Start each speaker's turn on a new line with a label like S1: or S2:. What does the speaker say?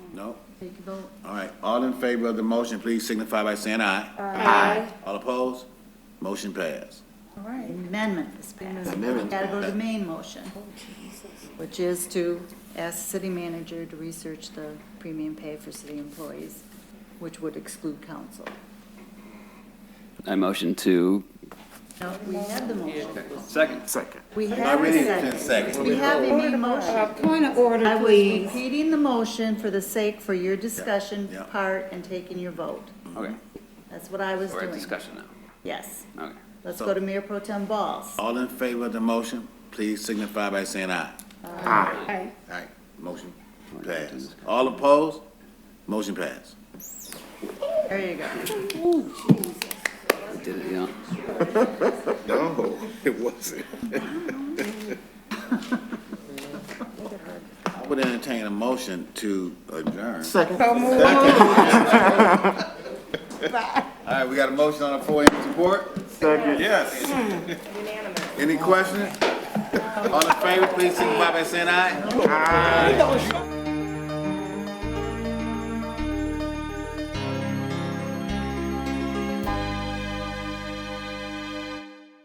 S1: No?
S2: Take a vote.
S1: All right, all in favor of the motion, please signify by saying aye.
S3: Aye.
S1: All opposed? Motion passed.
S3: All right, amendment is passed.
S1: Amendment.
S3: Got to go to the main motion, which is to ask the city manager to research the premium pay for city employees, which would exclude council.
S4: I motion to.
S3: No, we had the motion.
S4: Second.
S3: We
S1: I
S3: had
S1: really
S3: a
S1: need ten
S3: second.
S1: seconds.
S3: We have a main
S5: Uh,
S3: motion.
S5: Point of order,
S3: I was
S5: please.
S3: repeating the motion for the sake for your discussion
S1: yeah.
S3: part and taking your vote.
S4: Okay,
S3: That's what I was
S4: we're at
S3: doing.
S4: discussion now.
S3: Yes.
S4: Okay.
S3: Let's go to Mayor Pro Tem Balls.
S1: All in favor of the motion, please signify by saying aye.
S5: Aye.
S1: All right, motion passed. All opposed? Motion passed.
S3: There you go.
S4: Did it, yeah.
S1: No, it wasn't. I would entertain a motion to adjourn.
S5: So move
S1: All right, we got a motion on the floor, any support? Second. Yes. Unanimous. Any questions? All in favor, please signify by saying aye.